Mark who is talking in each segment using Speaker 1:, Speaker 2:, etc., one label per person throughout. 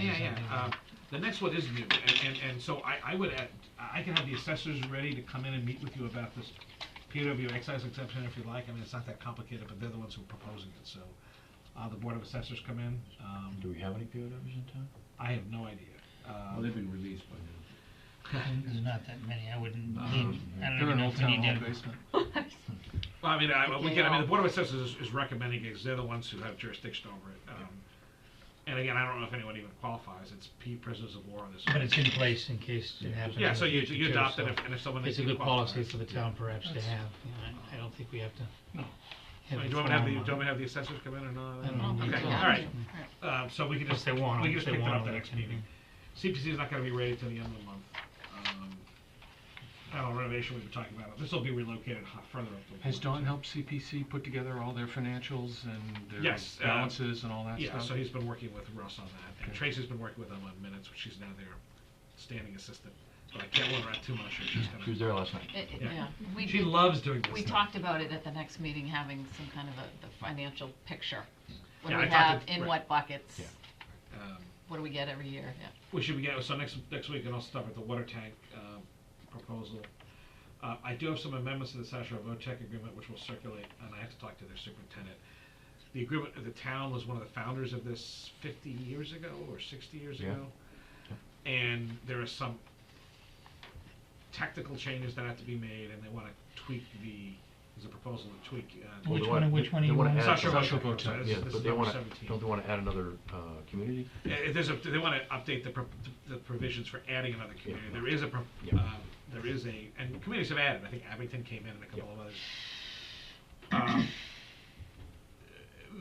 Speaker 1: yeah, yeah. Uh, The next one is new, and, and, and so I, I would add, I can have the assessors ready to come in and meet with you about this peer review excise exemption if you like, I mean, it's not that complicated, but they're the ones who are proposing it, so. Uh, the Board of Assessors come in, um,
Speaker 2: Do we have any POWs in town?
Speaker 1: I have no idea. Uh,
Speaker 3: Well, they've been released by now.
Speaker 4: There's not that many, I wouldn't need,
Speaker 3: Um,
Speaker 4: I don't
Speaker 1: They're
Speaker 4: even
Speaker 1: an
Speaker 4: know
Speaker 1: old
Speaker 4: if we
Speaker 1: town
Speaker 4: need
Speaker 1: hall
Speaker 4: to.
Speaker 1: basement. Well, I mean, I, we can, I mean, the Board of Assessors is- is recommending it, 'cause they're the ones who have jurisdiction over it. um, And again, I don't know if anyone even qualifies, it's P prisoners of war on this.
Speaker 4: But it's in place in case it happens.
Speaker 1: Yeah,
Speaker 4: in
Speaker 1: so
Speaker 4: the
Speaker 1: you,
Speaker 4: future,
Speaker 1: you adopt it
Speaker 4: so
Speaker 1: if- and if someone.
Speaker 4: It's a
Speaker 1: thinks you
Speaker 4: good policy
Speaker 1: qualify.
Speaker 4: for the town perhaps to have, you know, I- I don't think we have to.
Speaker 1: No.
Speaker 4: have
Speaker 1: I mean,
Speaker 4: it
Speaker 1: Do you want me to have the, do you
Speaker 4: formal.
Speaker 1: want me to have the assessors come in or not?
Speaker 4: I don't know.
Speaker 1: Okay,
Speaker 4: Yeah.
Speaker 1: all right. Um, so we can
Speaker 4: If
Speaker 1: just,
Speaker 4: they
Speaker 1: we
Speaker 4: want,
Speaker 1: can
Speaker 4: if
Speaker 1: just
Speaker 4: they
Speaker 1: pick that
Speaker 4: want
Speaker 1: up the
Speaker 4: it,
Speaker 1: next
Speaker 4: can be.
Speaker 1: meeting. CPC is not gonna be ready till the end of the month. Um, Panel renovation we've been talking about, this will be relocated h- further up the.
Speaker 5: Has
Speaker 1: line,
Speaker 5: Don helped CPC put together all their financials and their
Speaker 1: Yes, uh,
Speaker 5: balances and all
Speaker 1: so-
Speaker 5: that
Speaker 1: Yeah, so
Speaker 5: stuff?
Speaker 1: he's been working with Russ on that, and
Speaker 5: Okay.
Speaker 1: Tracy's been working with him on minutes, which she's now their standing assistant. But I can't let her out too much, or she's
Speaker 2: She
Speaker 1: gonna,
Speaker 2: was there last night.
Speaker 6: It- it-
Speaker 1: Yeah.
Speaker 6: Yeah, we,
Speaker 1: she
Speaker 6: did-
Speaker 1: loves doing this
Speaker 6: we
Speaker 1: stuff.
Speaker 6: talked about it at the next meeting, having some kind of a, the financial picture. What do
Speaker 1: Yeah, I
Speaker 6: we
Speaker 1: talked
Speaker 6: have,
Speaker 1: to-
Speaker 6: in
Speaker 1: right.
Speaker 6: what buckets,
Speaker 2: Yeah.
Speaker 1: Um,
Speaker 6: what do we get every year, yeah.
Speaker 1: We should begin, so next, next week, and I'll start with the water tank um, proposal. Uh, I do have some amendments to the Sasha Votek agreement, which will circulate, and I have to talk to their superintendent. The agreement, the town was one of the founders of this fifty years ago, or sixty years
Speaker 2: Yeah.
Speaker 1: ago. And there are some technical changes that have to be made, and they wanna tweak the, there's a proposal to tweak. uh,
Speaker 4: Which
Speaker 2: Well, they
Speaker 4: one-
Speaker 2: wanna-
Speaker 4: which one
Speaker 2: they
Speaker 4: do you
Speaker 2: wanna
Speaker 4: want?
Speaker 2: add
Speaker 1: Sasha
Speaker 2: some-
Speaker 1: Votek, I'm sorry,
Speaker 2: Yeah,
Speaker 1: this this
Speaker 2: but
Speaker 1: is
Speaker 2: they
Speaker 1: number
Speaker 2: wanna,
Speaker 1: seventeen.
Speaker 2: don't they wanna add another, uh, community?
Speaker 1: Uh, There's a, they want to update the, pro- the provisions for adding another community. There is a, pro-
Speaker 2: Yeah.
Speaker 1: um, there is a, and communities have added, I think Abington came in and a couple of others. Um,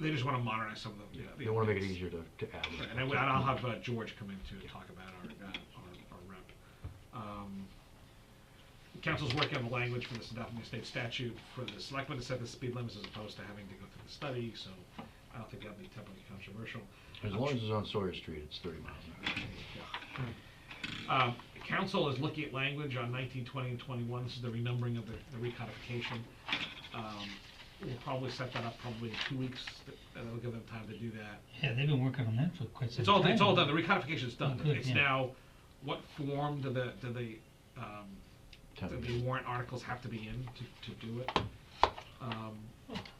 Speaker 1: They just want to modernize some of the, you know. the
Speaker 2: They wanna make it
Speaker 1: updates.
Speaker 2: easier to, to add.
Speaker 1: Right, And I- and I'll have uh, George come in to talk about our, uh, our, our rep. Um, Council's working on the language for this New State statute for the selectmen to set the speed limits as opposed to having to go through the study, so I don't think that'll be terribly controversial.
Speaker 2: As long as it's on Sawyer Street, it's thirty miles an hour.
Speaker 1: Um, Council is looking at language on 19, 20, and 21, this is the renumbering of the the recodification. Um, We'll probably set that up probably in two weeks, Th- that'll give them time to do that.
Speaker 4: Yeah, they've been working on that for quite some
Speaker 1: It's
Speaker 4: time.
Speaker 1: all, it's all done, the recodification's done,
Speaker 4: Good,
Speaker 1: it's
Speaker 4: yeah.
Speaker 1: now, what form do the, do the, um, do
Speaker 2: Town
Speaker 1: the
Speaker 2: meeting.
Speaker 1: warrant articles have to be in to, to do it? Um,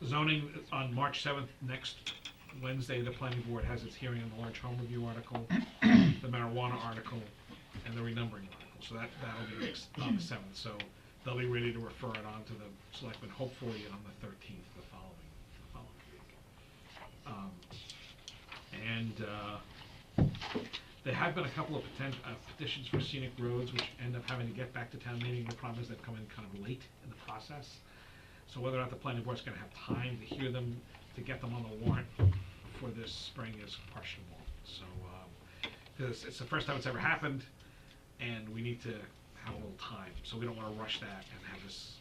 Speaker 1: Zoning is on March 7th, next Wednesday, the planning board has its hearing on the large home review article, the marijuana article, and the renumbering article, so that, that'll be next, on the 7th, so they'll be ready to refer it on to the selectmen, hopefully on the 13th, the following, the following week. Um, And uh, there have been a couple of poten- uh, petitions for scenic roads, which end up having to get back to town meeting. The problem is they've come in kind of late in the process. So whether or not the planning board's gonna have time to hear them, to get them on the warrant for this spring is questionable. So, um, because it's the first time it's ever happened, and we need to have a little time. So we don't wanna rush that and have this,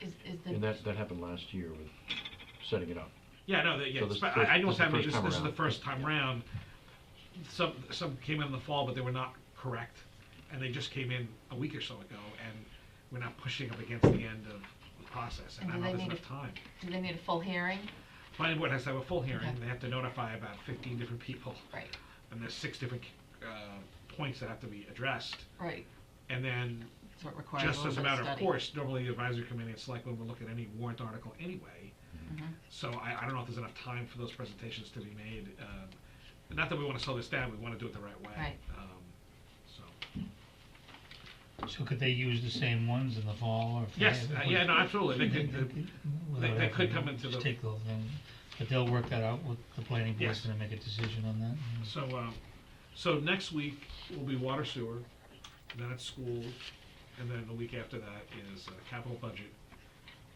Speaker 6: Is, is
Speaker 2: And
Speaker 6: the,
Speaker 2: that, that happened last year with setting it up.
Speaker 1: yeah, no, the- yeah,
Speaker 2: So this
Speaker 1: it's- I
Speaker 2: first-
Speaker 1: I know it's
Speaker 2: this is the
Speaker 1: happening,
Speaker 2: first
Speaker 1: this
Speaker 2: time
Speaker 1: this is the
Speaker 2: around.
Speaker 1: first time round. Some, some came in in the fall, but they were not correct, and they just came in a week or so ago, and we're not pushing up against the end of the process, and I
Speaker 6: And
Speaker 1: don't
Speaker 6: do
Speaker 1: know if
Speaker 6: they
Speaker 1: there's
Speaker 6: need
Speaker 1: enough time.
Speaker 6: do they need a full hearing?
Speaker 1: Planning board has to have a full hearing,
Speaker 6: Okay.
Speaker 1: they have to notify about fifteen different people,
Speaker 6: Right,
Speaker 1: and there's six different, uh, points that have to be addressed.
Speaker 6: right,
Speaker 1: And then
Speaker 6: so it requires a
Speaker 1: just
Speaker 6: little
Speaker 1: as a
Speaker 6: bit
Speaker 1: matter
Speaker 6: of
Speaker 1: of
Speaker 6: study.
Speaker 1: course, normally the advisory committee and select would look at any warrant article anyway.
Speaker 6: Mm-hmm.
Speaker 1: So I, I don't know if there's enough time for those presentations to be made. um, Not that we want to slow this down, we want to do it the right way.
Speaker 6: Right.
Speaker 1: um, So,
Speaker 4: So could they use the same ones in the fall or? if they-
Speaker 1: yes, uh, yeah, no, absolutely. They
Speaker 4: They-
Speaker 1: could,
Speaker 4: they-
Speaker 1: the- they-
Speaker 4: without
Speaker 1: they
Speaker 4: having
Speaker 1: could
Speaker 4: to
Speaker 1: come into
Speaker 4: just
Speaker 1: the-
Speaker 4: take the whole thing. But they'll work that out with the planning board's
Speaker 1: Yes.
Speaker 4: gonna make a decision on that. and-
Speaker 1: so, um, so next week will be water sewer, then it's school, and then the week after that is uh, capital budget.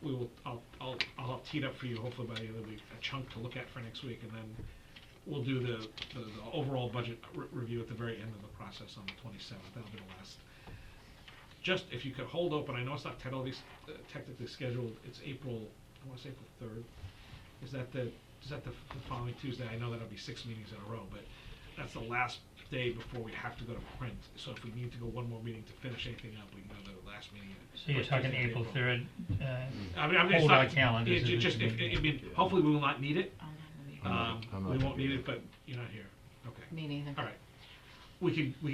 Speaker 1: We will, I'll, I'll, I'll tee it up for you hopefully by the end of the week, a chunk to look at for next week, and then we'll do the, the the overall budget re- review at the very end of the process on the twenty-seventh, that'll be the last. Just, if you could hold open, I know it's not technically, uh, technically scheduled, it's April, I wanna say April third. Is that the, is that the f- the following Tuesday? I know that'll be six meetings in a row, but that's the last day before we have to go to print. So if we need to go one more meeting to finish anything up, we can go to the last meeting. in-
Speaker 4: So you're
Speaker 1: first
Speaker 4: talking
Speaker 1: Tuesday of
Speaker 4: April third, uh,
Speaker 1: I mean, I'm just
Speaker 4: Hold
Speaker 1: not.
Speaker 4: our calendars
Speaker 1: it-
Speaker 4: if
Speaker 1: it
Speaker 4: we
Speaker 1: just,
Speaker 4: can
Speaker 1: if-
Speaker 4: make
Speaker 1: I mean,
Speaker 2: Yeah.
Speaker 1: hopefully we will not need it.
Speaker 6: I'm not gonna be-
Speaker 2: I'm not-
Speaker 1: Um,
Speaker 2: I'm not
Speaker 1: we
Speaker 2: gonna
Speaker 1: won't
Speaker 2: be
Speaker 1: need it,
Speaker 2: there.
Speaker 1: but you're not here. Okay.
Speaker 6: Me neither.
Speaker 1: All right. we could, we